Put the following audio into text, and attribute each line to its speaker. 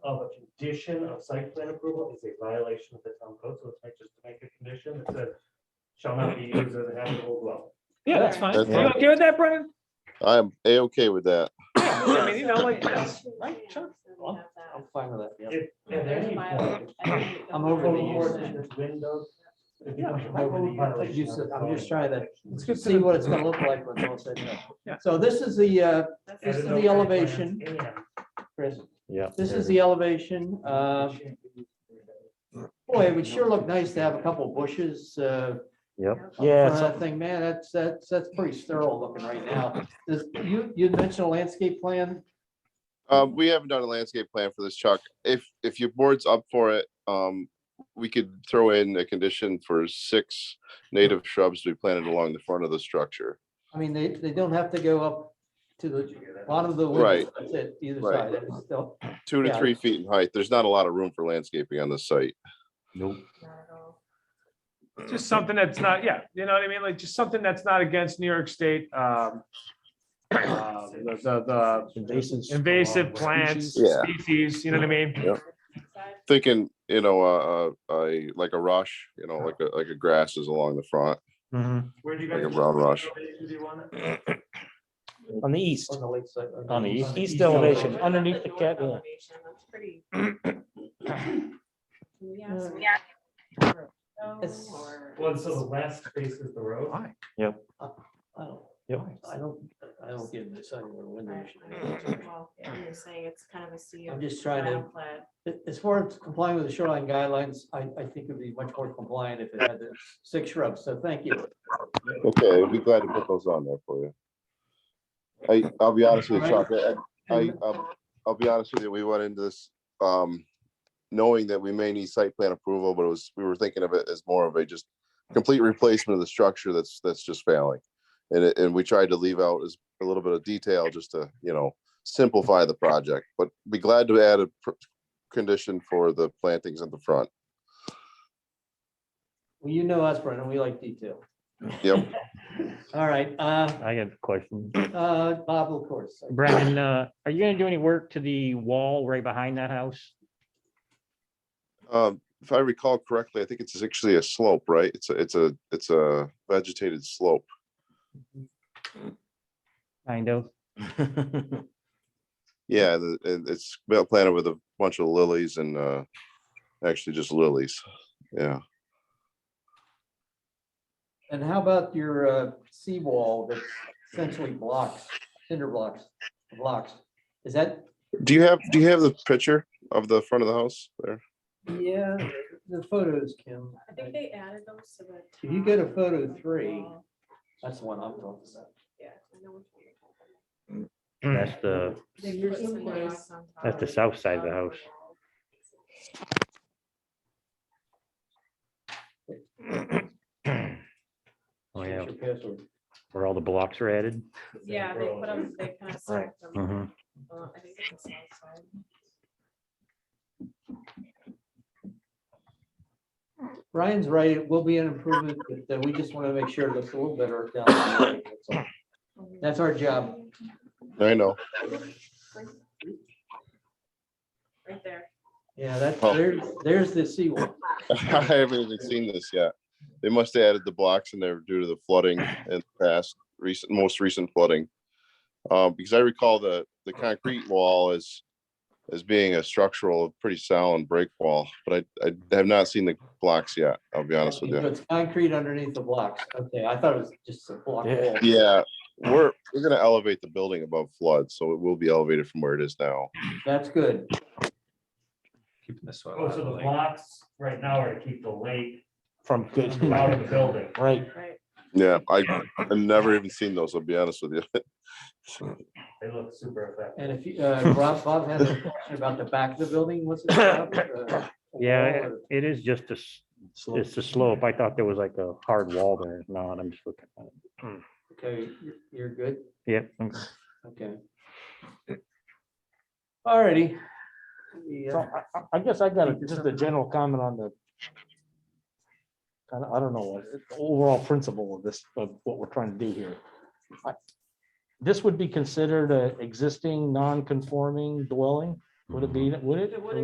Speaker 1: of a condition of site plan approval is a violation of the town code, so let's make, just make a condition that says shall not be used as a habitable dwelling.
Speaker 2: Yeah, that's fine.
Speaker 3: That's
Speaker 2: You
Speaker 3: fine.
Speaker 2: okay with that, Brendan?
Speaker 3: I am A-OK with that.
Speaker 2: Yeah, I mean, you know, like, right, sure.
Speaker 4: I'm fine with that, yeah.
Speaker 1: If at any point,
Speaker 4: I'm over the
Speaker 1: code
Speaker 4: use.
Speaker 1: ordinance, windows. it
Speaker 2: Yeah,
Speaker 1: becomes a
Speaker 4: I'm over the use.
Speaker 1: violation
Speaker 4: Use
Speaker 1: of
Speaker 4: it.
Speaker 1: the
Speaker 4: I'm just
Speaker 1: zoning.
Speaker 4: trying to
Speaker 2: It's good
Speaker 4: Let's
Speaker 2: to
Speaker 4: see
Speaker 2: know.
Speaker 4: what it's gonna look like when it's all said and
Speaker 2: Yeah.
Speaker 4: done. So this is the, uh,
Speaker 1: Add
Speaker 4: This is
Speaker 1: it
Speaker 4: the
Speaker 1: over plans
Speaker 4: elevation.
Speaker 1: and-
Speaker 4: Chris,
Speaker 5: Yeah.
Speaker 4: this is the elevation. Uh, boy, it would sure look nice to have a couple bushes, uh,
Speaker 5: Yeah,
Speaker 4: front of
Speaker 5: it's-
Speaker 4: that thing, man, that's, that's, that's pretty sterile looking right now. Does, you, you mentioned a landscape plan?
Speaker 3: Um, we haven't done a landscape plan for this, Chuck. If, if your board's up for it, um, we could throw in a condition for six native shrubs to be planted along the front of the structure.
Speaker 4: I mean, they, they don't have to go up to the bottom of the
Speaker 3: Right.
Speaker 4: woods, that's it, either
Speaker 3: Right.
Speaker 4: side, it's still,
Speaker 3: Two to
Speaker 4: Yeah.
Speaker 3: three feet in height. There's not a lot of room for landscaping on this site.
Speaker 5: nope.
Speaker 2: Just something that's not, yeah, you know what I mean? Like, just something that's not against New York State, um, uh, the, the- the
Speaker 5: Invasive.
Speaker 2: invasive plants,
Speaker 3: Yeah.
Speaker 2: species, you know what I mean?
Speaker 3: Thinking, you know, uh, uh, I, like a rush, you know, like a, like a grass is along the front.
Speaker 5: Mhm.
Speaker 1: Where do you
Speaker 3: Like
Speaker 1: guys?
Speaker 3: a brown rush.
Speaker 1: Do you want it?
Speaker 5: On the east,
Speaker 4: on the lake side.
Speaker 5: on the east,
Speaker 1: east
Speaker 5: east
Speaker 1: elevation.
Speaker 5: elevation, underneath the cat. yeah.
Speaker 6: Yeah.
Speaker 4: It's-
Speaker 1: Well, so the last space is the road.
Speaker 2: Why?
Speaker 4: I don't,
Speaker 5: Yep.
Speaker 4: I don't, I don't get this, I don't know when they should.
Speaker 6: You're saying it's kind of a sea
Speaker 4: I'm
Speaker 6: of
Speaker 4: just trying to.
Speaker 6: brown plant.
Speaker 4: A- As far as complying with the shoreline guidelines, I, I think it'd be much more compliant if it had the six shrubs, so thank you.
Speaker 3: Okay, I'd be glad to put those on there for you. I, I'll be honest with you, Chuck, I- I,
Speaker 4: And-
Speaker 3: um, I'll be honest with you, we went into this, um, knowing that we may need site plan approval, but it was, we were thinking of it as more of a just complete replacement of the structure that's, that's just failing. And, it- and we tried to leave out as a little bit of detail just to, you know, simplify the project, but be glad to add a pr- condition for the plantings at the front.
Speaker 4: Well, you know us, Brendan, we like detail.
Speaker 3: Yep.
Speaker 4: All right, uh,
Speaker 7: I got a question.
Speaker 4: uh, Bob, of course.
Speaker 7: Brandon, uh, are you gonna do any work to the wall right behind that house?
Speaker 3: Um, if I recall correctly, I think it's actually a slope, right? It's a, it's a, it's a vegetated slope.
Speaker 7: Kind of.
Speaker 3: Yeah, the- and it's well planted with a bunch of lilies and uh actually just lilies. Yeah.
Speaker 4: And how about your, uh, seawall that's essentially blocks, cinder blocks, blocks? Is that,
Speaker 3: Do you have, do you have the picture of the front of the house there?
Speaker 4: yeah, the photos, Kim.
Speaker 6: I think they added those to the.
Speaker 4: If you go to
Speaker 6: top
Speaker 4: photo
Speaker 6: of the
Speaker 4: three-
Speaker 6: wall.
Speaker 4: That's the one I'm talking about.
Speaker 6: Yeah. I know which one you're talking about.
Speaker 1: Hmm.
Speaker 5: Mm.
Speaker 7: That's the,
Speaker 6: They
Speaker 8: Here's
Speaker 6: put
Speaker 8: some
Speaker 6: some
Speaker 8: place.
Speaker 6: rocks on top
Speaker 7: that's the
Speaker 6: of
Speaker 7: south side of the
Speaker 6: top
Speaker 7: house.
Speaker 6: wall.
Speaker 7: Oh, yeah,
Speaker 4: Here's your password.
Speaker 7: where all the blocks were added.
Speaker 6: Yeah, they put them, they kind of.
Speaker 5: Right.
Speaker 7: Mhm.
Speaker 6: I think it's the south side.
Speaker 4: Ryan's right, it will be an improvement, but then we just want to make sure it looks a little better down. the line, that's all. That's our job.
Speaker 3: I know.
Speaker 6: Right there.
Speaker 4: Yeah, that,
Speaker 3: Oh.
Speaker 4: there's, there's the seawall.
Speaker 3: I haven't even seen this yet. They must have added the blocks in there due to the flooding and past recent, most recent flooding. Uh, because I recall the, the concrete wall as, as being a structural, pretty sound break wall, but I, I have not seen the blocks yet, I'll be honest with you.
Speaker 4: It's concrete underneath the blocks. Okay, I thought it was just a block
Speaker 5: Yeah.
Speaker 4: wall.
Speaker 3: Yeah, we're, we're gonna elevate the building above flood, so it will be elevated from where it is now.
Speaker 4: That's good.
Speaker 2: Keeping this one.
Speaker 1: Oh, so the blocks right now are to keep the lake
Speaker 5: From.
Speaker 1: out of the building.
Speaker 5: Right,
Speaker 6: Right.
Speaker 3: Yeah, I, I've never even seen those, I'll be honest with you.
Speaker 1: They look super effective.
Speaker 4: And if you, uh, Rob, Bob had a question about the back of the building, what's it about? Uh,
Speaker 7: Yeah,
Speaker 4: wall or-
Speaker 7: it is just a, s- it's a slope. I thought there was like a hard wall there. No, I'm just looking at it.
Speaker 4: Okay, you're- you're good,
Speaker 7: Yep. I'm-
Speaker 4: okay. Alrighty. We,
Speaker 5: So
Speaker 4: uh,
Speaker 5: I, I- I guess I got a- just a general comment on the. I don't, I don't know, what the overall principle of this, of what we're trying to do here. I- This would be considered a existing non-conforming dwelling, would it be, would it?
Speaker 6: It wouldn't